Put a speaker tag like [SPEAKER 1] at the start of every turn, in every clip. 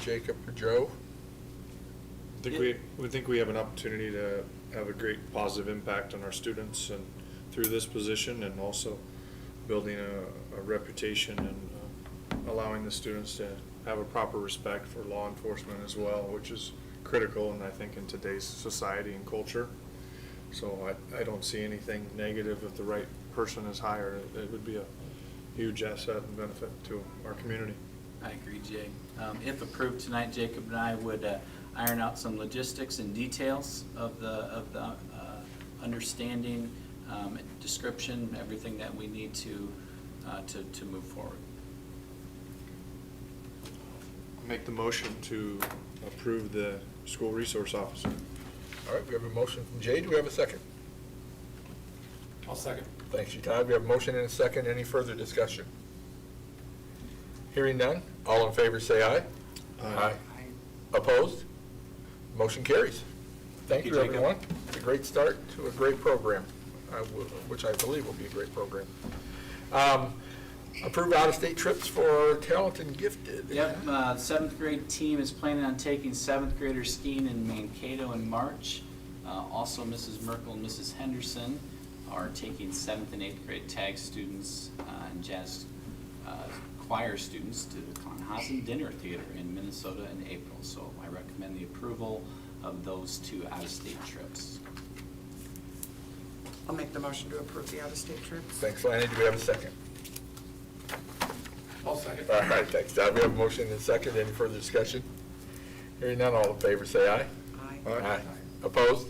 [SPEAKER 1] Jacob or Joe?
[SPEAKER 2] I think we, we think we have an opportunity to have a great positive impact on our students and through this position and also building a, a reputation and uh, allowing the students to have a proper respect for law enforcement as well, which is critical and I think in today's society and culture. So I, I don't see anything negative if the right person is hired. It- It would be a huge asset and benefit to our community.
[SPEAKER 3] I agree, Jay. Um, If approved tonight, Jacob and I would uh, iron out some logistics and details of the, of the uh, understanding, um, description, everything that we need to, uh, to, to move forward.
[SPEAKER 2] Make the motion to approve the school resource officer.
[SPEAKER 1] All right, we have a motion from Jay. Do we have a second?
[SPEAKER 4] I'll second.
[SPEAKER 1] Thanks, you, Todd. We have a motion and a second. Any further discussion? Hearing none. All in favor, say aye.
[SPEAKER 2] Aye.
[SPEAKER 1] Opposed? Motion carries. Thank
[SPEAKER 4] Thank you,
[SPEAKER 1] you,
[SPEAKER 4] Jacob.
[SPEAKER 1] everyone. It's a great start to a great program, I will- which I believe will be a great program. Um, Approve out-of-state trips for talented and gifted.
[SPEAKER 3] Yep, uh, seventh grade team is planning on taking seventh graders skiing in Mankato in March. Uh, Also, Mrs. Merkel and Mrs. Henderson are taking seventh and eighth grade tag students uh, and jazz uh, choir students to the Conhozen Dinner Theater in Minnesota in April. So I recommend the approval of those two out-of-state trips.
[SPEAKER 5] I'll make the motion to approve the out-of-state trips.
[SPEAKER 1] Thanks, Lanny. Do we have a second?
[SPEAKER 4] I'll second.
[SPEAKER 1] All right, thanks, Todd. We have a motion and a second. Any further discussion? Hearing none, all in favor, say aye.
[SPEAKER 5] Aye.
[SPEAKER 1] Opposed?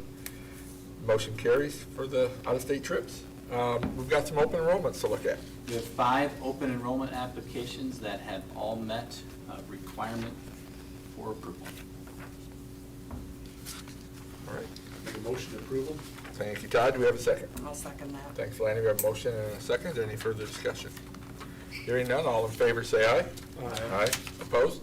[SPEAKER 1] Motion carries for the out-of-state trips. Um, We've got some open enrollments to look at.
[SPEAKER 3] We have five open enrollment applications that have all met uh, requirement for approval.
[SPEAKER 1] All right.
[SPEAKER 4] Make a motion to approval?
[SPEAKER 1] Thank you, Todd. Do we have a second?
[SPEAKER 5] I'll second that.
[SPEAKER 1] Thanks, Lanny. We have a motion and a second. Is there Any further discussion? Hearing none, all in favor, say aye.
[SPEAKER 4] Aye.
[SPEAKER 1] Opposed?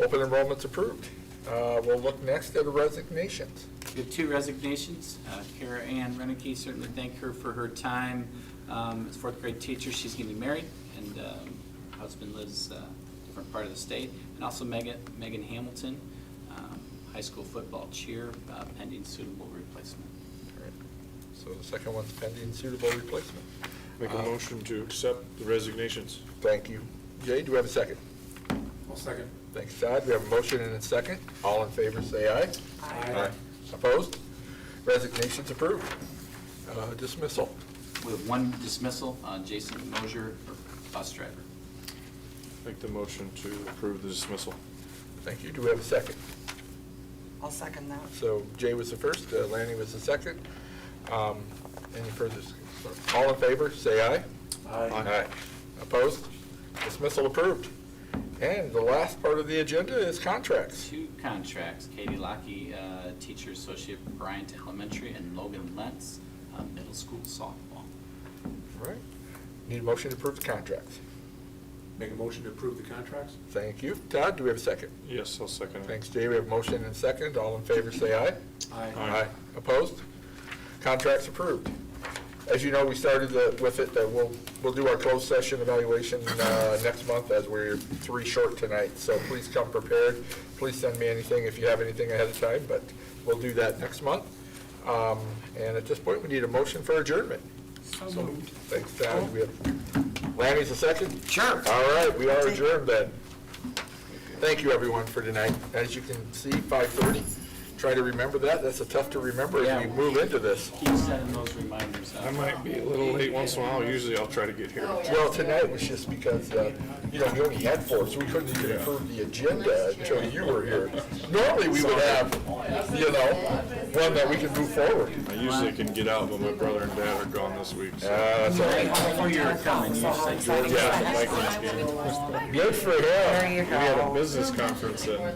[SPEAKER 1] Open enrollment's approved. Uh, We'll look next at resignations.
[SPEAKER 3] We have two resignations. Uh, Kara Ann Reneke, certainly thank her for her time um, as fourth grade teacher. She's getting married, and um, husband lives uh, different part of the state. And also Megan, Megan Hamilton, um, high school football cheer, uh, pending suitable replacement.
[SPEAKER 1] All right. So the second one's pending suitable replacement.
[SPEAKER 2] Make a
[SPEAKER 1] Uh,
[SPEAKER 2] motion to accept the resignations.
[SPEAKER 1] Thank you. Jay, do we have a second?
[SPEAKER 4] I'll second.
[SPEAKER 1] Thanks, Todd. We have a motion and a second. All in favor, say aye.
[SPEAKER 4] Aye.
[SPEAKER 1] Opposed? Resignations approved. Uh, Dismissal.
[SPEAKER 3] We have one dismissal, uh, Jason Mosier, bus driver.
[SPEAKER 2] Make the motion to approve the dismissal.
[SPEAKER 1] Thank you. Do we have a second?
[SPEAKER 5] I'll second that.
[SPEAKER 1] So Jay was the first, uh, Lanny was the second. Um, Any further, discussion? all in favor, say aye.
[SPEAKER 2] Aye.
[SPEAKER 1] Opposed? Dismissal approved. And the last part of the agenda is contracts.
[SPEAKER 3] two contracts, Katie Lockey, uh, teacher associate Bryant Elementary, and Logan Lentz, uh, middle school softball.
[SPEAKER 1] All right. Need a motion to approve the contracts.
[SPEAKER 4] Make a motion to approve the contracts?
[SPEAKER 1] Thank you. Todd, do we have a second?
[SPEAKER 2] Yes, I'll second it.
[SPEAKER 1] Thanks, Jay. We have a motion and a second. All in favor, say aye.
[SPEAKER 2] Aye.
[SPEAKER 1] Opposed? Contracts approved. As you know, we started the- with it, that we'll, we'll do our closed session evaluation uh, next month, as we're three short tonight, so please come prepared. Please send me anything if you have anything ahead of time, but we'll do that next month. Um, And at this point, we need a motion for adjournment.
[SPEAKER 5] So moved.
[SPEAKER 1] Thanks, Todd. We have, Lanny's a second?
[SPEAKER 5] Sure.
[SPEAKER 1] All right, we are adjourned then. Thank you, everyone, for tonight. As you can see, 5:30. Try to remember that. That's a tough to remember as we move into this.
[SPEAKER 3] Keep setting those reminders up.
[SPEAKER 2] I might be a little late once in a while. Usually I'll try to get here.
[SPEAKER 1] Well, tonight was just because, uh, you know, we only had four, so we couldn't even approve the agenda until you were here. Normally, we would have, you know, one that we can move forward.
[SPEAKER 2] I usually can get out, but my brother and dad are gone this week, so.
[SPEAKER 1] Uh, so,
[SPEAKER 3] Before you were coming, you said you were
[SPEAKER 1] yeah,
[SPEAKER 2] Vikings game.
[SPEAKER 1] good for him.
[SPEAKER 2] We had a business conference at